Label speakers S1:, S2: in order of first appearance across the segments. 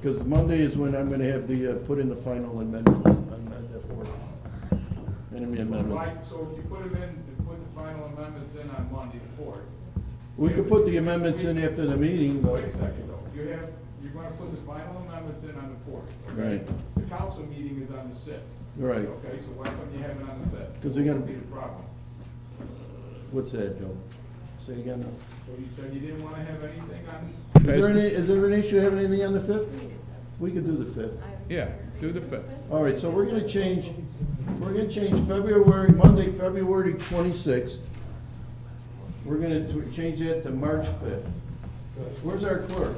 S1: Because Monday is when I'm gonna have the, uh, put in the final amendments on on that form. Enemy
S2: Right,
S1: amendments.
S2: so if you put them in, and put the final amendments in on Monday the fourth.
S1: We could put the amendments in after the meeting, but.
S2: Wait a second though, you have, you're gonna put the final amendments in on the fourth.
S1: Right.
S2: The council meeting is on the sixth.
S1: Right.
S2: Okay, so why couldn't you have it on the fifth?
S1: 'Cause we gotta-
S2: What would Be the problem.
S1: What's that, Joe? Say again.
S2: So you said you didn't wanna have anything on,
S1: Is there any, is there an issue having anything on the fifth? We could do the fifth.
S3: Yeah, do the fifth.
S1: All right, so we're gonna change, we're gonna change February, Monday, February twenty-sixth. We're gonna t- change that to March fifth. Where's our clerk?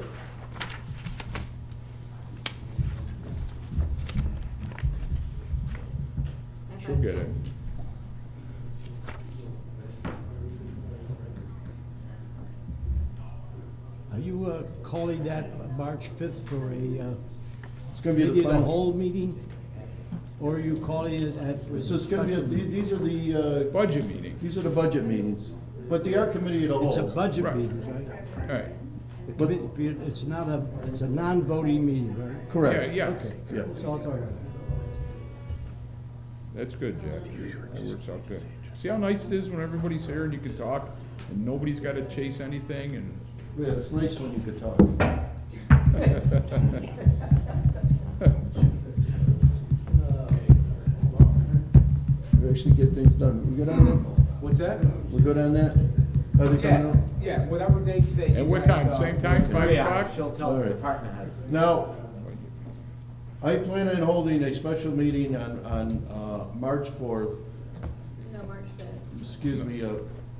S3: She'll get it.
S4: Are you uh, calling that March 5th for a, uh,
S1: It's gonna be
S4: maybe
S1: the
S4: the whole
S1: final.
S4: meeting? Or are you calling it at?
S1: It's just gonna be, a- the- these are the, uh,
S3: Budget meeting,
S1: these are the budget meetings, but they are committee of the whole.
S4: It's a budget
S3: Right.
S4: meeting, right?
S3: all right.
S4: The commi- It's not a, it's a non-voting meeting, right?
S3: Yeah,
S1: Correct.
S3: yeah,
S4: Okay.
S1: Yeah.
S4: So I thought-
S3: that's good, Jack. That works out good. See how nice it is when everybody's here and you can talk and nobody's gotta chase anything and.
S1: Yeah, it's nice when you could talk. We actually get things done. We good on that?
S5: What's that?
S1: We good on that? Are they coming
S5: Yeah,
S1: out?
S5: yeah, whatever they say.
S3: At
S5: you
S3: what
S5: guys,
S3: time?
S5: uh,
S3: Same time, five
S5: yeah,
S3: o'clock?
S5: She'll tell
S1: All
S5: the
S1: right.
S5: department heads.
S1: Now, I plan on holding a special meeting on, on, uh, March fourth,
S6: No, March fifth.
S1: excuse me, uh,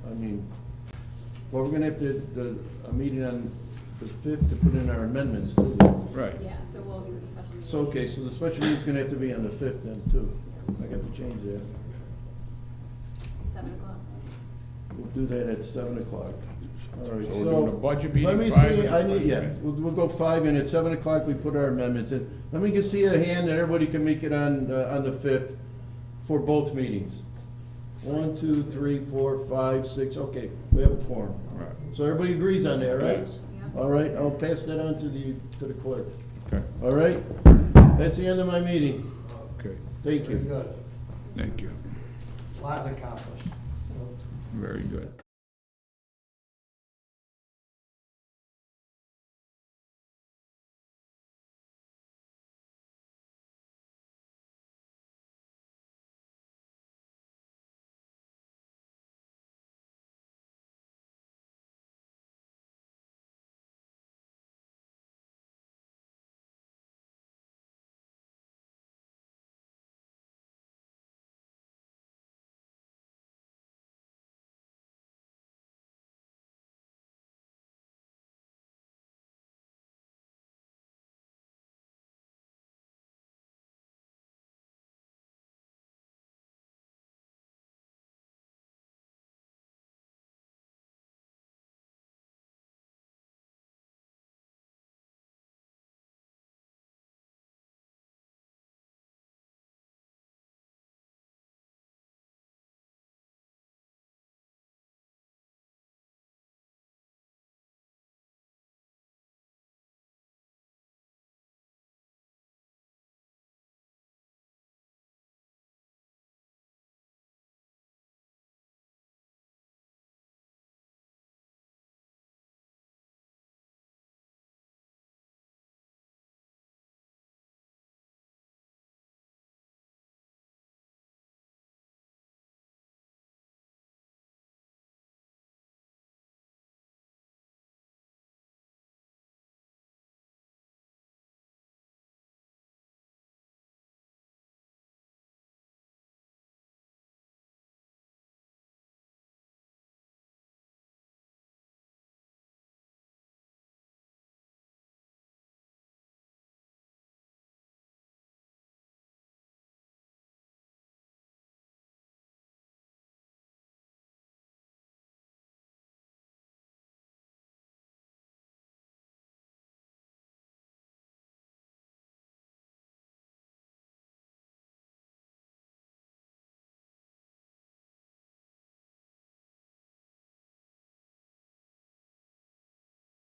S1: I mean, well, we're gonna have to, the, a meeting on the fifth to put in our amendments too.
S3: Right,
S6: Yeah, so we'll do the special meeting.
S1: So, okay, so the special meeting's gonna have to be on the fifth then too. I got to change that.
S6: Seven o'clock.
S1: We'll do that at seven o'clock. All right,
S3: So
S1: so.
S3: we're doing a budget meeting,
S1: Let me
S3: five,
S1: see,
S3: and a
S1: I need,
S3: special
S1: yeah,
S3: meeting.
S1: we'll, we'll go five and at seven o'clock we put our amendments in. Let me just see a hand that everybody can make it on, uh, on the fifth for both meetings. One, two, three, four, five, six, okay, we have a quorum.
S3: Right.
S1: So everybody agrees on that, right?
S3: Yes.
S6: Yeah.
S1: All right, I'll pass that on to the, to the clerk.
S3: okay,
S1: All right? That's the end of my meeting.
S3: okay,
S1: Thank you.
S7: Very good.
S3: thank you,
S7: Lot accomplished.
S3: very good.